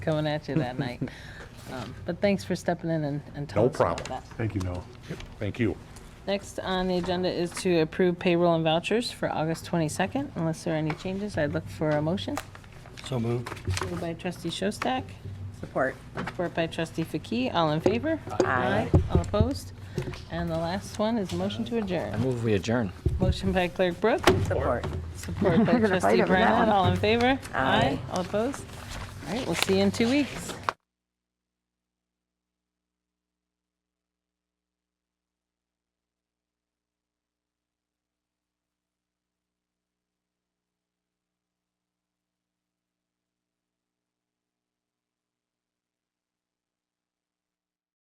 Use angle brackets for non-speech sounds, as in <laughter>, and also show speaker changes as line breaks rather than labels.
coming at you that
<laughs>
night. Um, But thanks for stepping in and and telling
No
us about
problem.
that.
Thank you, Noah. Thank you.
Next on the agenda is to approve payroll and vouchers for August 22nd. Unless there are any changes, I'd look for a motion.
So moved.
Moved by trustee Shostak,
Support.
support by trustee Faki. All in favor? Aye. All opposed? And the last one is a motion to
I
adjourn.
move we adjourn.
Motion by clerk Brooke,
Support.
support by
<laughs> gonna fight
trustee
over that
Brennan.
one.
All in favor?
Aye.
All opposed? All right, we'll see you in two weeks.